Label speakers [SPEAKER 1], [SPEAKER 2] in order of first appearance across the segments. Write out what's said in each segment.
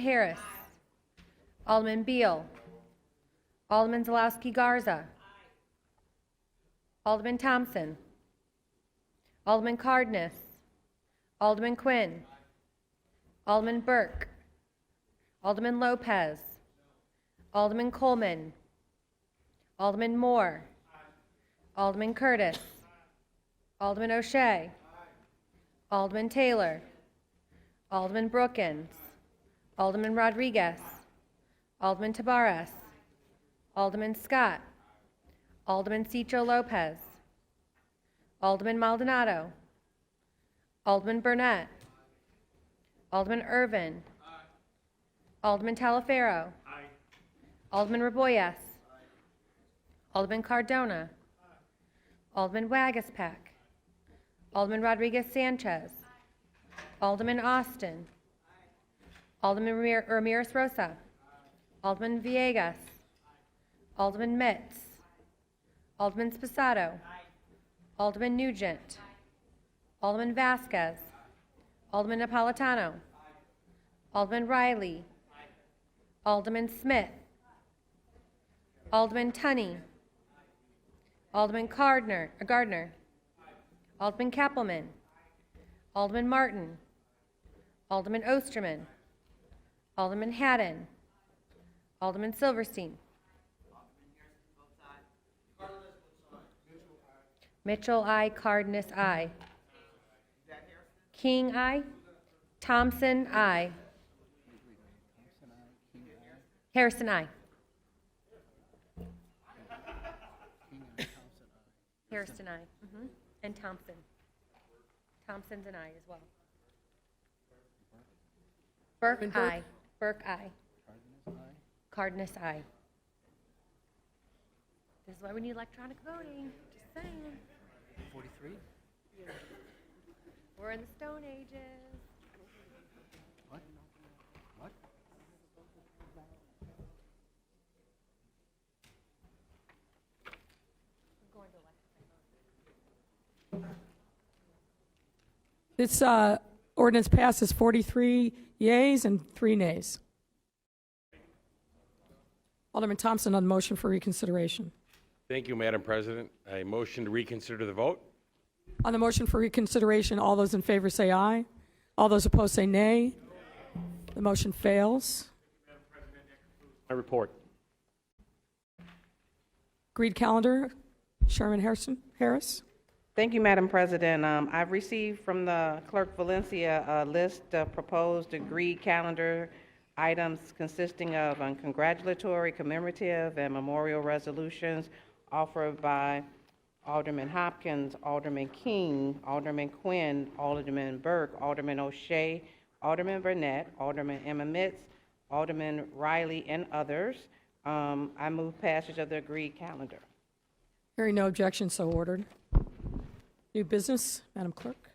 [SPEAKER 1] Harris. Alderman Beal. Alderman Zulowski Garza. Alderman Thompson. Alderman Cardenas. Alderman Quinn. Alderman Burke. Alderman Lopez. Alderman Coleman. Alderman Moore. Alderman Curtis. Alderman O'Shea. Alderman Taylor. Alderman Brookins. Alderman Rodriguez. Alderman Tabarez. Alderman Scott. Alderman Cicho Lopez. Alderman Maldonado. Alderman Burnett. Alderman Irvin. Alderman Talaferro. Alderman Raboyes. Alderman Cardona. Alderman Wagaspack. Alderman Rodriguez Sanchez. Alderman Austin. Alderman Ramir- Ramirez Rosa. Alderman Villegas. Alderman Mitz. Alderman Spacado. Alderman Nugent. Alderman Vasquez. Alderman Napolitano. Alderman Riley. Alderman Smith. Alderman Tunney. Alderman Gardner, uh, Gardner. Alderman Kappelman. Alderman Martin. Alderman Osterman. Alderman Haddon. Alderman Silverstein. Mitchell, I. Cardenas, I. King, I. Thompson, I. Harrison, I. Harrison, I. Mhm. And Thompson. Thompson's an I as well. Burke, I. Burke, I. Cardenas, I. This is why we need electronic voting, just saying.
[SPEAKER 2] 43?
[SPEAKER 1] We're in the Stone Ages.
[SPEAKER 2] What? What?
[SPEAKER 3] This uh, ordinance passes 43 yeas and three nays. Alderman Thompson on the motion for reconsideration.
[SPEAKER 4] Thank you, Madam President. I motion to reconsider the vote.
[SPEAKER 3] On the motion for reconsideration, all those in favor say aye. All those opposed say nay. The motion fails.
[SPEAKER 4] My report.
[SPEAKER 3] Agreed calendar, Sherman Harrison, Harris.
[SPEAKER 5] Thank you, Madam President. Um, I've received from the Clerk Valencia a list of proposed agreed calendar items consisting of um, congratulatory, commemorative, and memorial resolutions offered by Alderman Hopkins, Alderman King, Alderman Quinn, Alderman Burke, Alderman O'Shea, Alderman Burnett, Alderman Emma Mitz, Alderman Riley, and others. Um, I move passage of the agreed calendar.
[SPEAKER 3] Hearing no objection, so ordered. New business, Madam Clerk.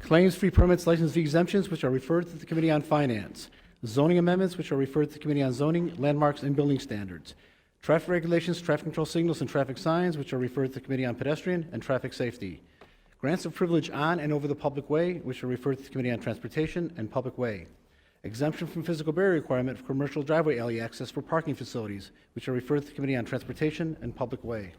[SPEAKER 2] Claims, fee permits, license fee exemptions, which are referred to the Committee on Finance. Zoning amendments, which are referred to the Committee on Zoning, Landmarks, and Building Standards. Traffic regulations, traffic control signals, and traffic signs, which are referred to the Committee on Pedestrian and Traffic Safety. Grants of privilege on and over the public way, which are referred to the Committee on Transportation and Public Way. Exemption from physical barrier requirement for commercial driveway alley access for parking facilities, which are referred to the Committee on Transportation and Public Way.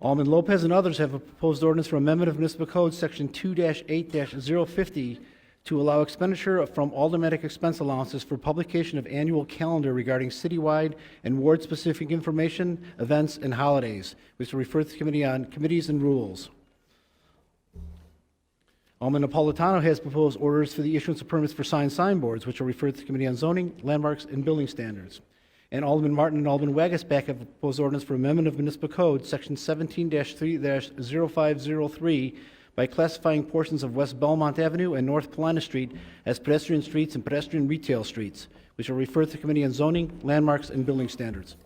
[SPEAKER 2] Alderman Lopez and others have a proposed ordinance for amendment of municipal code, section 2-8-050, to allow expenditure from aldermanic expense allowances for publication of annual calendar regarding citywide and ward-specific information, events, and holidays, which will refer to the committee on committees and rules. Alderman Napolitano has proposed orders for the issuance of permits for signed signboards, which are referred to the Committee on Zoning, Landmarks, and Building Standards. And Alderman Martin and Alderman Wagasback have proposed ordinance for amendment of municipal code, section 17-3-0503, by classifying portions of West Belmont Avenue and North Polana Street as pedestrian streets and pedestrian retail streets, which are referred to the Committee on Zoning, Landmarks, and Building Standards.